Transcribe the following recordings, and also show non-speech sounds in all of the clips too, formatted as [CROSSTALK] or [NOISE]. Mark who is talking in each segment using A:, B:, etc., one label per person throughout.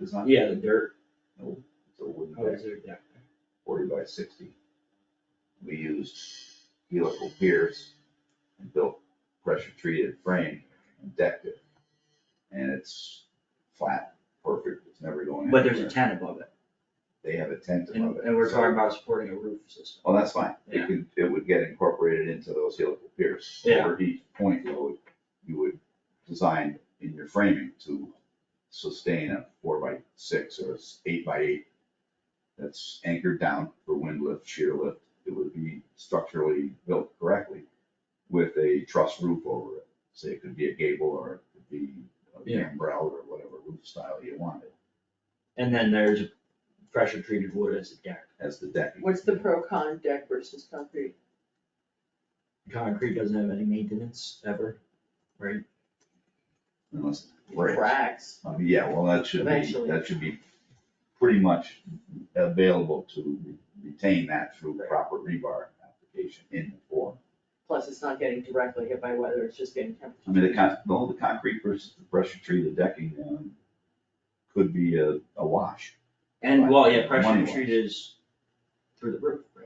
A: it's not.
B: Yeah, the dirt,
A: Nope, it's a wooden
B: oh,
A: deck,
B: is there deck?
A: forty by sixty. We used helical piers and built pressure treated frame and decked it. And it's flat, perfect, it's never going
B: But there's a
A: anywhere.
B: tent above it,
A: They have a tent
B: and,
A: above it.
B: and we're
A: so-
B: talking about supporting a roof system.
A: Well, Oh, that's fine.
B: Yeah.
A: It could, it would get incorporated into those helical piers.
B: Yeah.
A: Or each point load, you would design in your framing to sustain a four by six or s- eight by eight. That's anchored down for wind lift, shear lift. It would be structurally built correctly with a truss roof over it. So it could be a gable or it could be a
B: Yeah.
A: gambrel or whatever roof style you wanted
B: And then there's a pressure treated wood as a deck.
A: as the decking.
C: What's the pro con deck versus concrete?
B: Concrete doesn't have any maintenance ever, right?
A: Unless it breaks.
C: Cracks.
A: Uh, Yeah, well, that should be,
C: Eventually.
A: that should be pretty much available to re- retain that through proper rebar application in the form.
C: Plus, it's not getting directly hit by weather, it's just getting temperature.
A: I mean, the con, the whole concrete versus the pressure treated decking, um, could be a, a wash.
B: And, well, yeah, pressure
A: Money-wise.
B: treated is through the roof, right?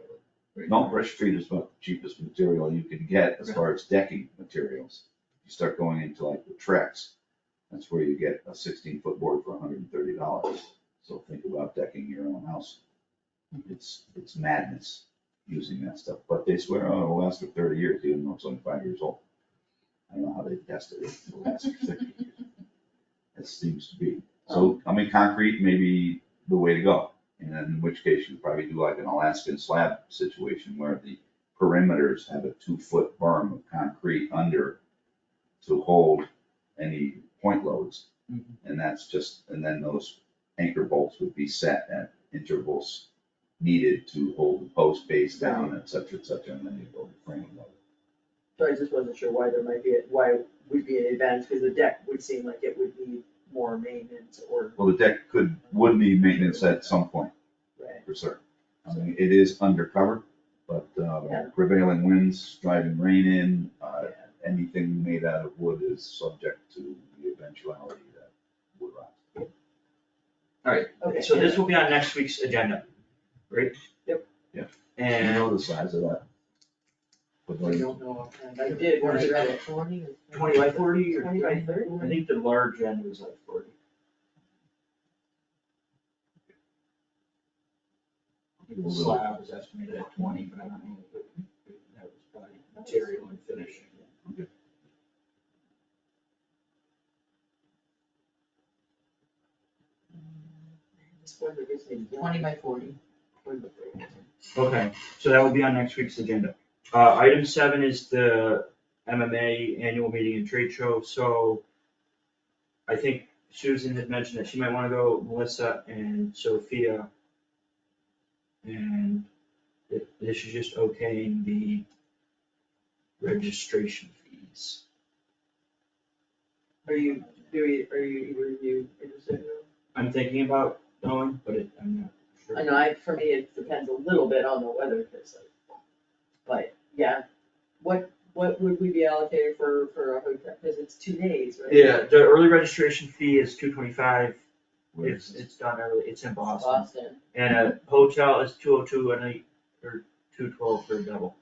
B: Right.
A: No, pressure treated is about the cheapest material you can get as
B: Okay.
A: far as decking materials. You start going into like the Trex, that's where you get a sixteen foot board for hundred and thirty dollars. So think about decking your own house. It's, it's madness using that stuff, but they swear, oh, it'll last for thirty years, even though it's only five years old. I don't know how they tested it, it'll last for sixty years. It seems to be, so, I mean, concrete may be the way to go. And then in which case you probably do like an Alaskan slab situation where the perimeters have a two-foot berm of concrete under to hold any point loads.
B: Mhm.
A: And that's just, and then those anchor bolts would be set at intervals needed to hold the post base down, et cetera, et cetera, and then you build the frame. load.
C: So I just wasn't sure why there might be, a- why would be an advantage, because the deck would seem like it would need more maintenance or.
A: Well, the deck could, would need maintenance at some point.
C: Right.
A: for certain. I mean, it is undercover, but uh,
C: Yeah.
A: prevailing winds, driving rain in, uh,
C: Yeah.
A: anything made out of wood is subject to the eventuality that wood rots.
C: Okay.
B: So this will be on next week's agenda, right?
C: Yep.
A: Yeah. Do you
B: And
A: know the size of that? Wood
C: I
A: line?
C: don't know, offhand. I did when I read it.
D: Twenty or-
B: twenty by forty or?
C: Twenty by thirty?
B: I think the large end was like forty. I think The slab was estimated at twenty, but I don't know. That was probably material and finishing.
C: This weather gives me the-
D: Twenty by forty.
B: Okay, so that will be on next week's agenda. Uh, item seven is the MMA annual meeting and trade show, so I think Susan had mentioned that she might wanna go, Melissa and Sophia. And thi- this is just okaying the registration fees.
C: Are you, do you, are you, either of you interested in them?
B: I'm thinking about going, but it, I'm not sure.
C: I know, I, for me, it depends a little bit on the weather, cause like, but, yeah, what, what would we be allocated for, for a hotel, cause it's two days, right?
B: Yeah, the early registration fee is two twenty-five,
A: Where
B: it's,
A: is it?
B: it's done early, it's in Boston.
C: Boston,
B: And a hotel is two oh two a night, or two twelve for a double.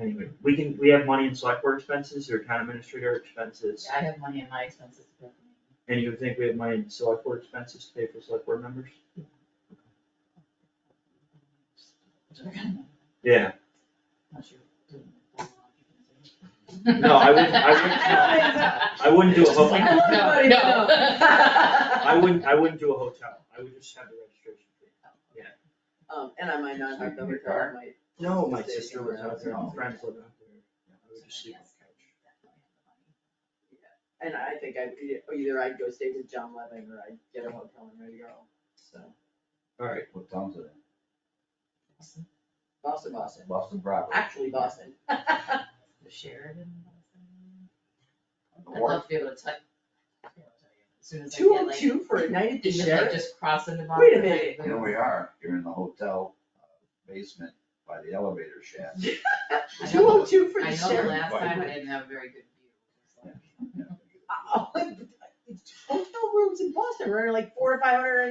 B: Anyway, we can, we have money in select board expenses or town administrator expenses,
D: I have money in my expenses. but-
B: and you think we have money in select board expenses to pay for select board members?
C: [LAUGHS]
B: Yeah,
D: Unless you're doing it.
B: no, I wouldn't, I wouldn't,
D: [LAUGHS]
B: I wouldn't do a hotel,
C: [LAUGHS] Everybody
D: No.
B: I wouldn't, I wouldn't do a hotel, I would just have the registration fee.
C: um, and I might not have the
A: Sleep in your
C: hotel, I
A: car?
C: might.
B: No, my
C: Just stay
B: sister was out there, my friends lived out there, I would just sleep on the couch.
C: And I think I, either I'd go stay with John Levin or I'd get a hotel in Ready Girl, so,
B: Alright,
A: What town's it in?
C: Boston, Boston,
A: Boston Broadway.
C: actually Boston.
D: The Sheridan. I'd
A: Or
D: love to be able to touch. As soon as I
C: Two
D: get
C: oh
D: like.
C: two for a night at the
D: Even if I
C: Sheraton,
D: [LAUGHS] just cross into.
C: Wait a
D: Boston,
C: minute.
D: like,
A: Here we are, you're in the hotel uh, basement by the elevator shaft. uh,
D: I
C: two oh
D: know-
C: two for
D: I
C: the
D: know the
C: Sheraton.
D: last time I didn't have a very good view.
C: [LAUGHS]
A: Yeah.
C: Oh, hotel rooms in Boston are like four to five hundred